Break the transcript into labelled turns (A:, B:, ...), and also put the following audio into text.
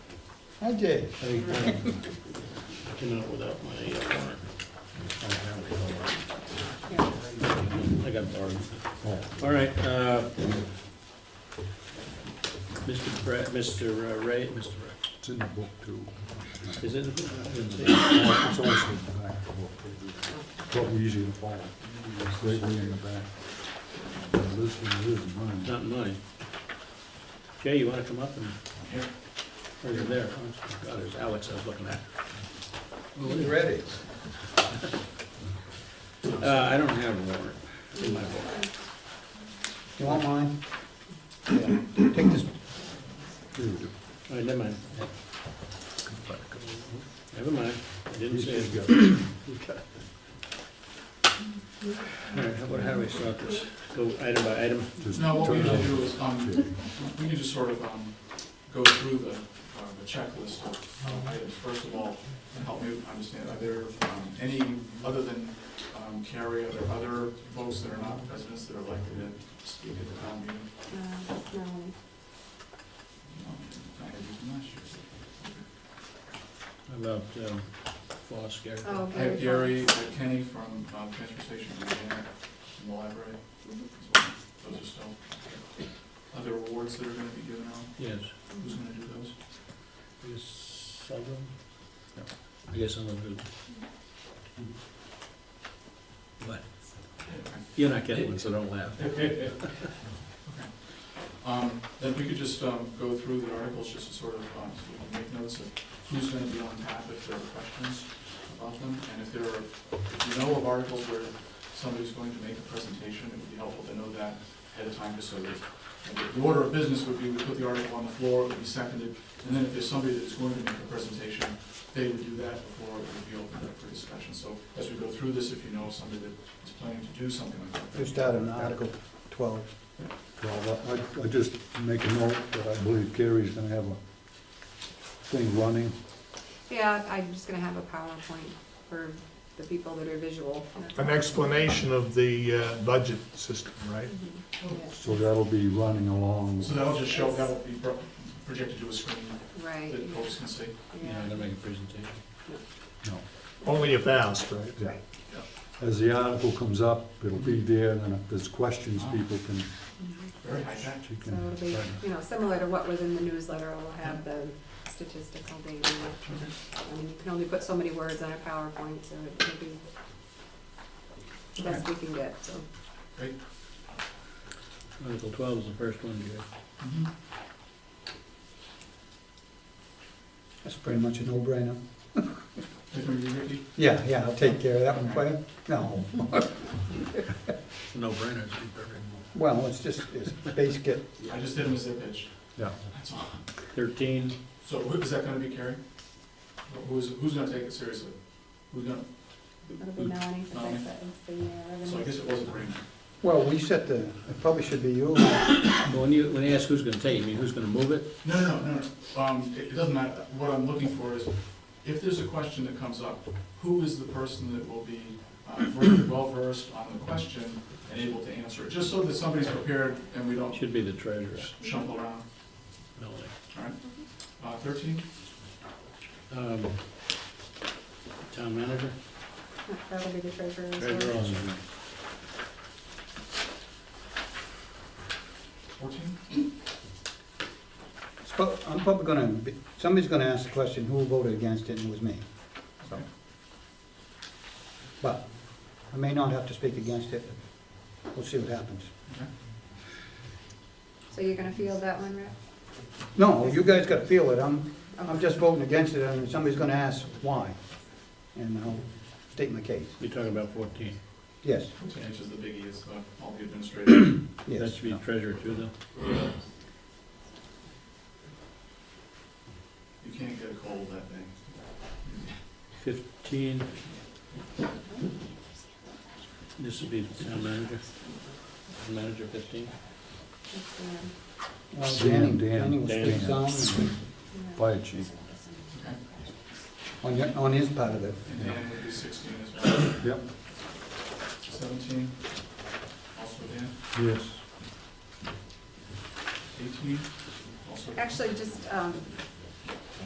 A: I did.
B: I uh, came out without my uh, warrant. I got bored. All right, uh, Mr. Brett, Mr. uh, Ray, Mr. Ray,
C: It's in the book too.
B: is it? I didn't see it.
C: It's always in the back of the book. What we usually follow, it's right way in the back. This one is
B: It's
C: mine.
B: not mine. Jay, you wanna come up and? Or you're there, oh, God, there's Alex I was looking at.
A: Who's ready?
B: Uh, I don't have a warrant in my book.
A: You want mine? Yeah. Take this,
C: Here we go.
B: All right, never mind. Never mind, I didn't see it.
C: He's got it.
B: All right, how about how do we start this? Go item by item.
C: Just
D: No, what we
C: turn it
D: usually
C: on.
D: do is, um, we need to sort of, um, go through the, uh, the checklist of uh, items. First of all, help me understand, are there, um, any, other than, um, Carrie, are there other folks that are not residents that are likely to speak at the town meeting?
E: Uh, no,
D: Um, I had used them last year.
B: How About, um, Foss, Gary.
E: oh,
D: I have Gary,
E: Gary
D: I
E: Fox.
D: have Kenny from, um, Transportation, Diana from the library. as well. Those are still, are there awards that are gonna be given out?
B: Yes.
D: Who's gonna do those?
B: I guess Sullivan? No, I guess someone who. What? You're not getting one, so don't laugh.
D: Um, Then we could just um, go through the articles, just to sort of, um, so we can make notes of who's gonna be on tap if there are questions about them. And if there are, if you know of articles where somebody's going to make a presentation, it would be helpful to know that ahead of time, just so that, and the order of business would be, we put the article on the floor, it would be seconded, and then if there's somebody that's going to make a presentation, they would do that before it would be opened up for discussion. So as we go through this, if you know somebody that is planning to do something like that.
A: just out of Article 12.
C: Well, I, I just make a note that I believe Carrie's gonna have a thing running.
E: Yeah, I'm just gonna have a PowerPoint for the people that are visual.
F: an explanation of the uh, budget system, right?
E: Mhm, yeah,
C: So that'll be running along.
D: So that'll just show, that'll be pro- projected to a screen
E: Right,
D: that folks can see.
B: You know,
E: yeah,
B: they're making a presentation.
C: No.
F: Only if asked, right?
C: Yeah. As the article comes up, it'll be there, and then if there's questions,
A: Ah,
C: people can,
E: mhm.
D: Very high tech.
C: you
E: So
C: can.
E: it'll be, you know, similar to what was in the newsletter, we'll have the statistical data.
D: Mm-hmm.
E: I mean, you can only put so many words on a PowerPoint, so it'll be the best we can get, so.
D: Great.
B: Article twelve is the first one, Gary.
A: That's pretty much a no-brainer.
D: Take them, you ready?
A: Yeah, yeah, I'll take care of that one for you. No,
B: No brainer, it's perfect.
A: well, it's just, it's basic, it-
D: I just did them as a pitch,
C: Yeah,
D: that's all.
B: Thirteen,
D: So who- is that gonna be Carrie? Who's, who's gonna take it seriously? Who's gonna,
E: It'll be Melanie for
D: Melanie.
E: six, that is the, uh,
D: so I
E: revenue.
D: guess it wasn't Raymond.
A: well, we set the, it probably should be you.
B: Well, when you, when you ask who's gonna take, it, you mean who's gonna move it?
D: No, no, no, no, no, um, it it doesn't matter, what I'm looking for is, if there's a question that comes up, who is the person that will be uh, ver- well-versed on the question and able to answer it? Just so that somebody's prepared and we don't
B: Should be the treasurer,
D: shuffle around,
B: Melanie.
D: all right? Uh, thirteen?
B: Um, Town manager?
E: That'll be the treasurer's.
B: Treasurer
E: work.
B: also.
D: Fourteen?
A: It's prob- I'm probably gonna, be- somebody's gonna ask the question, who voted against it, and it was me. So. But I may not have to speak against it. We'll see what happens.
E: So you're gonna field that one, Rick?
A: No, you guys gotta feel it. I'm, I'm
E: Okay.
A: just voting against it, and somebody's gonna ask why. And I'll state my case.
B: You're talking about fourteen.
A: Yes,
D: Fourteen is the biggie, it's uh, all the administrative.
B: That
A: yes.
B: should be treasurer too, though.
D: You can't get a cold that day.
B: Fifteen. This would be the town manager. Town Manager fifteen.
E: That's the, um,
A: Well, Danny,
C: Dan,
A: Danny will
B: Dan.
A: speak some
E: yeah.
C: fire chief.
D: Okay.
A: on, your- on his part of it.
D: And Dan would be sixteen as well.
C: Yep,
D: Seventeen, also Dan.
C: yes.
D: Eighteen, also. Dan.
E: Actually, just, um,